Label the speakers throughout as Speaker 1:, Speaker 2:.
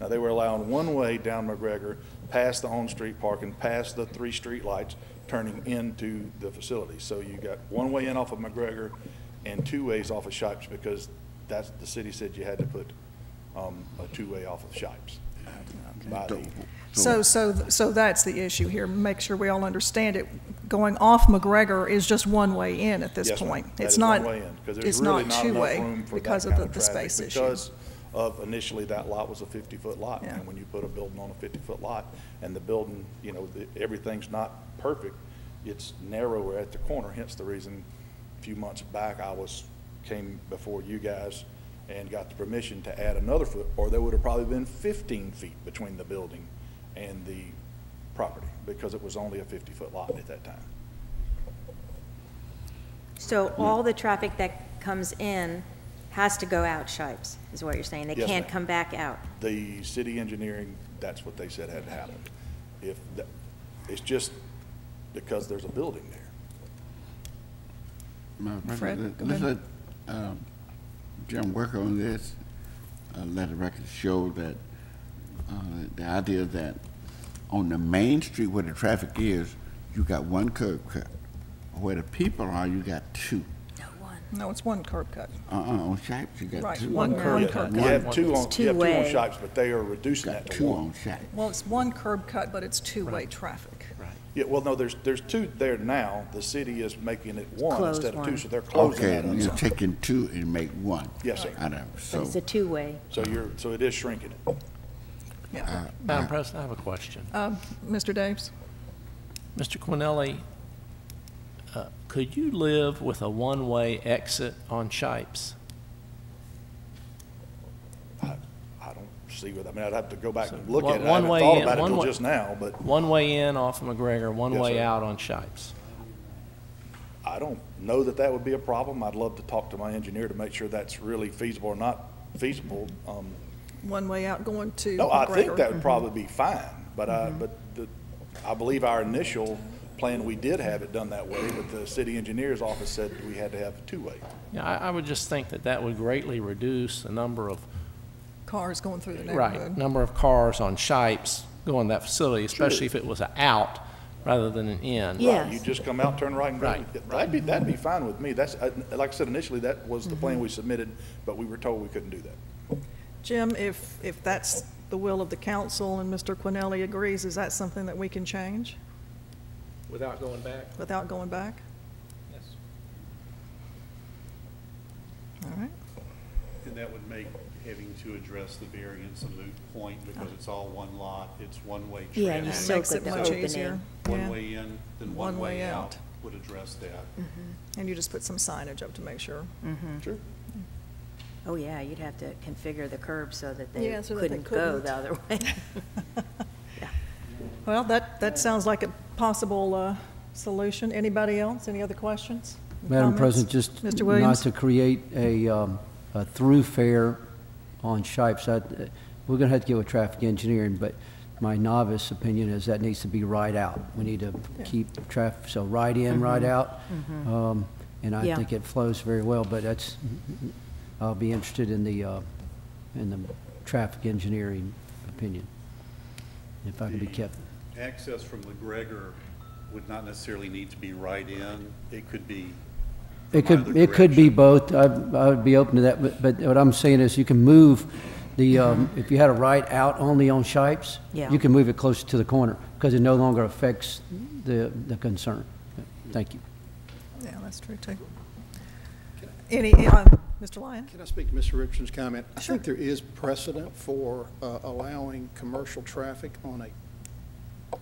Speaker 1: Now, they were allowing one-way down McGregor, past the on-street parking, past the three streetlights, turning into the facility. So you got one way in off of McGregor and two ways off of Shipes because that's, the city said you had to put um, a two-way off of Shipes. by the-
Speaker 2: So, so, so that's the issue here. Make sure we all understand it. Going off McGregor is just one way in at this
Speaker 1: Yes, ma'am.
Speaker 2: point.
Speaker 1: That
Speaker 2: It's
Speaker 1: is
Speaker 2: not,
Speaker 1: one way in, 'cause there's
Speaker 2: it's
Speaker 1: really enough
Speaker 2: not
Speaker 1: room
Speaker 2: two-way
Speaker 1: for that
Speaker 2: because of
Speaker 1: kind
Speaker 2: the, the
Speaker 1: traffic
Speaker 2: space issue.
Speaker 1: Because of initially, that lot was a 50-foot lot,
Speaker 2: Yeah.
Speaker 1: and when you put a building on a 50-foot lot, and the building, you know, the- everything's not perfect, it's narrower at the corner, hence the reason a few months back, I was, came before you guys and got the permission to add another foot, or there would have probably been 15 feet between the building and the property, because it was only a 50-foot lot at that time.
Speaker 3: So all the traffic that comes in has to go out Shipes, is what you're saying? They
Speaker 1: Yes,
Speaker 3: can't
Speaker 1: ma'am.
Speaker 3: come back out?
Speaker 1: the city engineering, that's what they said had happened. If, that- it's just because there's a building there.
Speaker 4: Madam President,
Speaker 2: Fred, go
Speaker 4: let's let
Speaker 2: ahead.
Speaker 4: um, Jim work on this. Uh, Let the record show that uh, the idea that on the main street where the traffic is, you got one curb cut. Where the people are, you got two.
Speaker 3: No one.
Speaker 2: No, it's one curb cut.
Speaker 4: Uh-uh, on Shipes, you got
Speaker 2: Right,
Speaker 4: two.
Speaker 2: one
Speaker 4: on-
Speaker 2: curb
Speaker 1: You
Speaker 2: One
Speaker 1: have
Speaker 2: cut.
Speaker 1: you have two on,
Speaker 3: It's
Speaker 1: you have two on
Speaker 3: two-way.
Speaker 1: shops, but they are reducing that
Speaker 4: Got
Speaker 1: to
Speaker 4: two
Speaker 1: one.
Speaker 4: on Shipes.
Speaker 2: Well, it's one curb cut, but it's two-way traffic.
Speaker 1: Yeah, well, no, there's, there's two there now. The city is making it one
Speaker 3: Close
Speaker 1: instead of two,
Speaker 3: one.
Speaker 1: so they're closing
Speaker 4: Okay,
Speaker 1: that on
Speaker 4: you're
Speaker 1: some.
Speaker 4: taking two and make one.
Speaker 1: Yes, sir.
Speaker 4: Out of,
Speaker 3: But
Speaker 4: so,
Speaker 3: it's a two-way.
Speaker 1: So you're, so it is shrinking it.
Speaker 2: Yeah.
Speaker 5: Madam President, I have a question.
Speaker 2: Um, Mr. Daves?
Speaker 5: Mr. Quinelli, uh, could you live with a one-way exit on Shipes?
Speaker 1: I, I don't see what, I mean, I'd have to go back and
Speaker 5: So
Speaker 1: look
Speaker 5: one-
Speaker 1: at it. I
Speaker 5: one
Speaker 1: haven't
Speaker 5: way
Speaker 1: thought
Speaker 5: in,
Speaker 1: about it
Speaker 5: one
Speaker 1: till
Speaker 5: way-
Speaker 1: just now, but
Speaker 5: One way in off of McGregor, one
Speaker 1: Yes,
Speaker 5: way
Speaker 1: sir.
Speaker 5: out on Shipes?
Speaker 1: I don't know that that would be a problem. I'd love to talk to my engineer to make sure that's really feasible or not feasible. Um,
Speaker 2: One way out going to McGregor?
Speaker 1: No, I think that would probably be fine, but I,
Speaker 3: Mm-hmm.
Speaker 1: but the, I believe our initial plan, we did have it done that way, but the city engineer's office said we had to have it two-way.
Speaker 5: Yeah, I, I would just think that that would greatly reduce the number of,
Speaker 2: Cars going through the
Speaker 5: right,
Speaker 2: neighborhood.
Speaker 5: number of cars on Shipes going to that facility, especially if it was an out rather than an in.
Speaker 3: Yeah.
Speaker 1: You just come out, turn right and go.
Speaker 5: Right.
Speaker 1: That'd be, that'd be fine with me. That's, I- like I said, initially, that was the
Speaker 3: Mm-hmm.
Speaker 1: plan we submitted, but we were told we couldn't do that.
Speaker 2: Jim, if, if that's the will of the council and Mr. Quinelli agrees, is that something that we can change
Speaker 6: Without going back?
Speaker 2: without going back?
Speaker 6: Yes.
Speaker 2: All right.
Speaker 7: And that would make having to address the variance a moot point because it's all one lot, it's one-way traffic.
Speaker 3: Yeah, you so
Speaker 2: Makes
Speaker 3: good
Speaker 2: it
Speaker 3: the
Speaker 2: much
Speaker 3: opening.
Speaker 2: easier.
Speaker 7: One
Speaker 2: Yeah.
Speaker 7: way in, then
Speaker 2: One
Speaker 7: one
Speaker 2: way
Speaker 7: way
Speaker 2: out.
Speaker 7: out would address that.
Speaker 2: And you just put some signage up to make sure.
Speaker 1: Sure.
Speaker 3: Oh, yeah, you'd have to configure the curb so that they
Speaker 2: Yeah, so that they
Speaker 3: couldn't go
Speaker 2: couldn't.
Speaker 3: the other way.
Speaker 2: Well, that, that sounds like a possible uh, solution. Anybody else? Any other questions?
Speaker 8: Madam
Speaker 2: Comments?
Speaker 8: President, just
Speaker 2: Mr.
Speaker 8: not
Speaker 2: Williams?
Speaker 8: to create a, um, a through fare on Shipes, I, we're gonna have to get with traffic engineering, but my novice opinion is that needs to be right out. We need to keep traffic, so right in,
Speaker 2: Mm-hmm.
Speaker 8: right out. Um, and I
Speaker 3: Yeah.
Speaker 8: think it flows very well, but that's, I'll be interested in the, uh, in the traffic engineering opinion. If I can be
Speaker 7: The
Speaker 8: kept,
Speaker 7: Access from McGregor would not necessarily need to be right in, it could be.
Speaker 8: It
Speaker 7: from
Speaker 8: could,
Speaker 7: either
Speaker 8: it could be
Speaker 7: direction.
Speaker 8: both. I, I would be open to that, but, but what I'm saying is you can move the, um, if you had a right out only on Shipes,
Speaker 3: Yeah.
Speaker 8: you can move it closer to the corner because it no longer affects the, the concern. Thank you.
Speaker 2: Yeah, that's true, too. Any, uh, Mr. Lyon?
Speaker 6: Can I speak to Mr. Richardson's comment? I think there is precedent for uh, allowing commercial traffic on a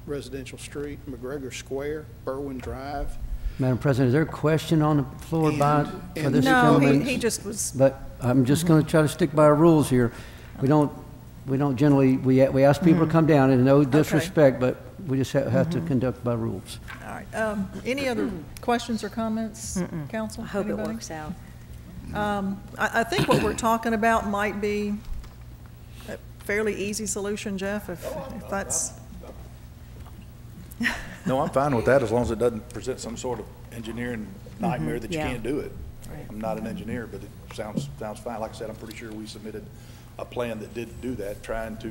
Speaker 6: residential street, McGregor Square, Berwin Drive.
Speaker 8: Madam President, is there a question on the floor by, for
Speaker 6: And-
Speaker 8: this
Speaker 2: No,
Speaker 8: gentleman?
Speaker 2: he, he just was,
Speaker 8: But I'm just going to try to stick by our rules here. We don't, we don't generally, we, we ask people
Speaker 2: Mm-hmm.
Speaker 8: to come down and no disrespect, but we just ha- have to conduct by rules.
Speaker 2: all right. Um, Any other questions or comments, council?
Speaker 3: I hope it
Speaker 2: Anybody? Um,
Speaker 3: works out.
Speaker 2: I, I think what we're talking about might be a fairly easy solution, Jeff, if, if that's,
Speaker 1: No, I'm fine with that as long as it doesn't present some sort of engineering nightmare that you
Speaker 3: Mm-hmm. Yeah.
Speaker 1: can't do it.
Speaker 3: Right.
Speaker 1: I'm not an engineer, but it sounds, sounds fine. Like I said, I'm pretty sure we submitted a plan that did do that, trying to